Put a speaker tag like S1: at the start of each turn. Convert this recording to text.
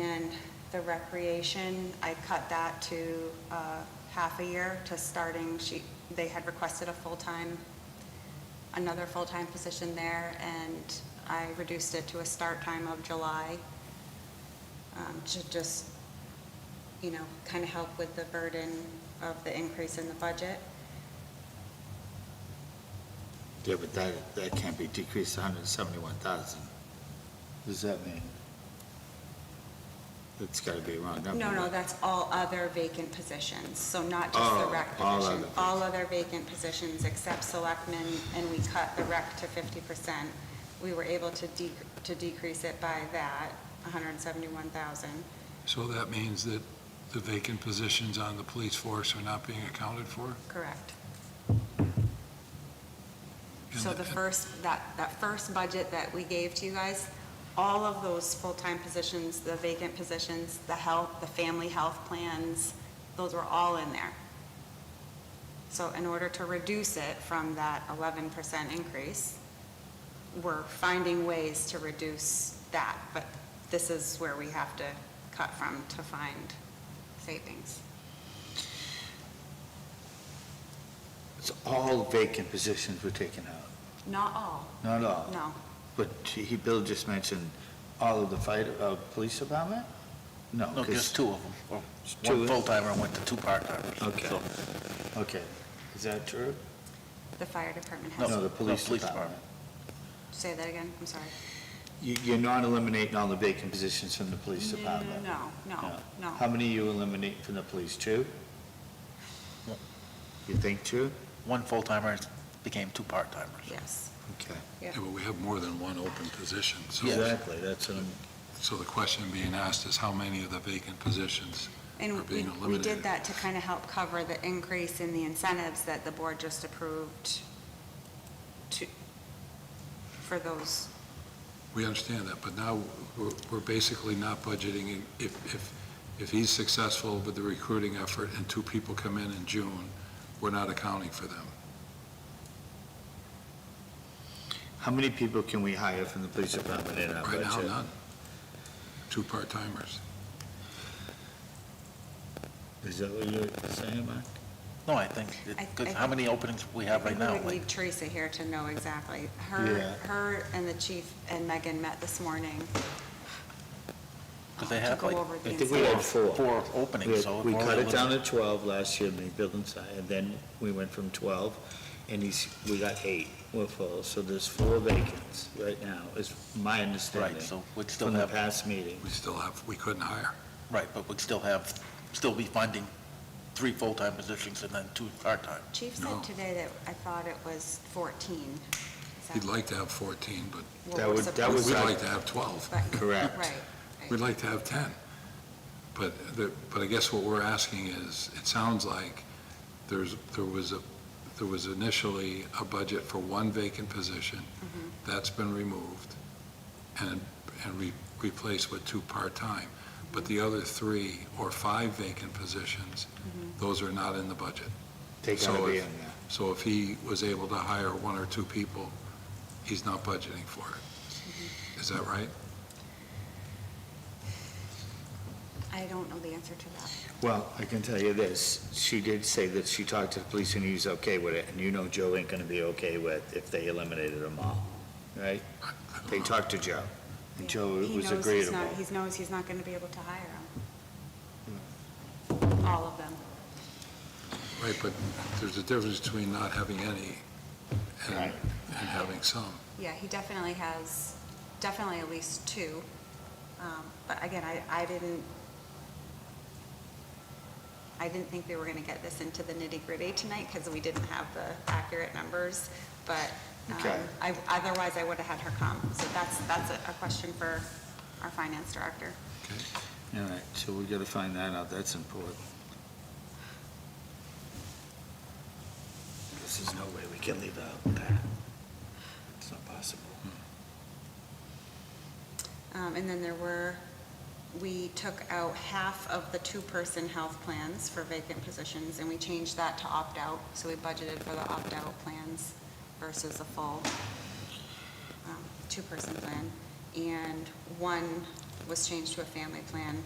S1: And the recreation, I cut that to uh, half a year to starting, she, they had requested a full-time, another full-time position there, and I reduced it to a start time of July um, to just, you know, kind of help with the burden of the increase in the budget.
S2: Yeah, but that, that can't be decreased hundred and seventy-one thousand. What does that mean? That's gotta be a wrong number.
S1: No, no,
S2: right?
S1: that's all other vacant positions, so not just the
S2: Oh,
S1: rec
S2: all
S1: position.
S2: other
S1: All other vacant positions except selectmen, and we cut the rec to fifty percent. We were able to de, to decrease it by that, hundred and seventy-one thousand.
S3: So that means that the vacant positions on the police force are not being accounted for?
S1: Correct.
S3: And
S1: So the first, that, that first budget that we gave to you guys, all of those full-time positions, the vacant positions, the health, the family health plans, those were all in there. So in order to reduce it from that eleven percent increase, we're finding ways to reduce that, but this is where we have to cut from to find savings.
S2: It's all vacant positions were taken out,
S1: Not all,
S2: not all.
S1: no.
S2: But he, Bill just mentioned all of the fire, uh, police department? No.
S4: No,
S2: 'cause-
S4: just two of them. Well,
S2: Two?
S4: One full-timer and went to two part-timers.
S2: Okay.
S4: So,
S2: Okay, is that true?
S1: The fire department
S2: No,
S1: has,
S2: the
S4: no,
S2: police
S4: police
S2: department.
S1: say that again, I'm sorry.
S2: You, you're not eliminating all the vacant positions from the police
S1: No,
S2: department?
S1: No, no, no.
S2: How many you eliminate from the police, two?
S4: No.
S2: You think two?
S4: one full-timer became two part-timers.
S1: Yes.
S2: Okay.
S3: Yeah, but we have more than one open position, so.
S2: Exactly, that's what I'm.
S3: So the question being asked is how many of the vacant positions? are
S1: And we,
S3: being
S1: we did
S3: eliminated.
S1: that to kind of help cover the increase in the incentives that the board just approved to, for those,
S3: We understand that, but now we're, we're basically not budgeting. in- If, if, if he's successful with the recruiting effort and two people come in in June, we're not accounting for them.
S2: How many people can we hire from the police department in our
S3: Right
S2: budget?
S3: now, none. Two part-timers.
S2: Is that what you're saying, Mark?
S4: No, I think, it-
S1: I-
S4: good.
S1: I-
S4: how many openings we have right
S1: I
S4: now?
S1: think we would
S4: Like,
S1: need Teresa here to know exactly.
S2: Yeah.
S1: Her, her and the chief and Megan met this morning.
S4: Because they
S1: to
S4: have
S1: go
S4: like
S1: over the
S2: I think we had
S1: incentives.
S2: four.
S4: four
S2: We-
S4: openings, so.
S2: We
S4: we're
S2: cut
S4: only
S2: it down
S4: looking-
S2: to 12 last year, in the building side, and then we went from 12, and he's, we got eight, we're full, so there's four vacants right now, is my understanding.
S4: Right, so we'd still
S2: From the
S4: have,
S2: past meeting.
S3: We still have, we couldn't hire.
S4: right, but we'd still have, still be finding three full-time positions and then two part-time.
S1: Chief
S3: No.
S1: said today that I thought it was 14. Is that
S3: He'd like to have 14, but
S1: what
S2: That
S1: we're
S2: would- that
S1: supposed
S2: was
S3: We'd
S2: our-
S1: to-
S3: like to have 12.
S1: but-
S2: Correct.
S1: Right,
S3: We'd
S1: right.
S3: like to have 10. But, the- but I guess what we're asking is, it sounds like there's, there was a, there was initially a budget for one vacant position. That's been removed and, and re- replaced with two part-time. But the other three or five vacant positions, those are not in the budget.
S2: They gotta
S3: So
S2: be
S3: if-
S2: in there.
S3: So if he was able to hire one or two people, he's not budgeting for it. Is that right?
S1: I don't know the answer to that.
S2: Well, I can tell you this, she did say that she talked to the police and he was okay with it, and you know Joe ain't gonna be okay with if they eliminated them all, right? They talked to Joe, and Joe
S1: He
S2: was
S1: knows he's
S2: agreeable.
S1: not, he knows he's not going to be able to hire
S2: Hmm.
S1: them. All of them.
S3: Right, but there's a difference between not having any and,
S2: Right.
S3: and having some.
S1: Yeah, he definitely has, definitely at least two. Um, But again, I, I didn't, I didn't think we were going to get this into the nitty-gritty tonight because we didn't have the accurate numbers, but um,
S2: Okay.
S1: I, otherwise I would have had her come. So that's, that's a a question for our finance director.
S2: All right, so we gotta find that out, that's important. This is no way we can leave out that. It's not possible.
S1: Um, And then there were, we took out half of the two-person health plans for vacant positions, and we changed that to opt-out, so we budgeted for the opt-out plans versus a full um, two-person plan. And one was changed to a family plan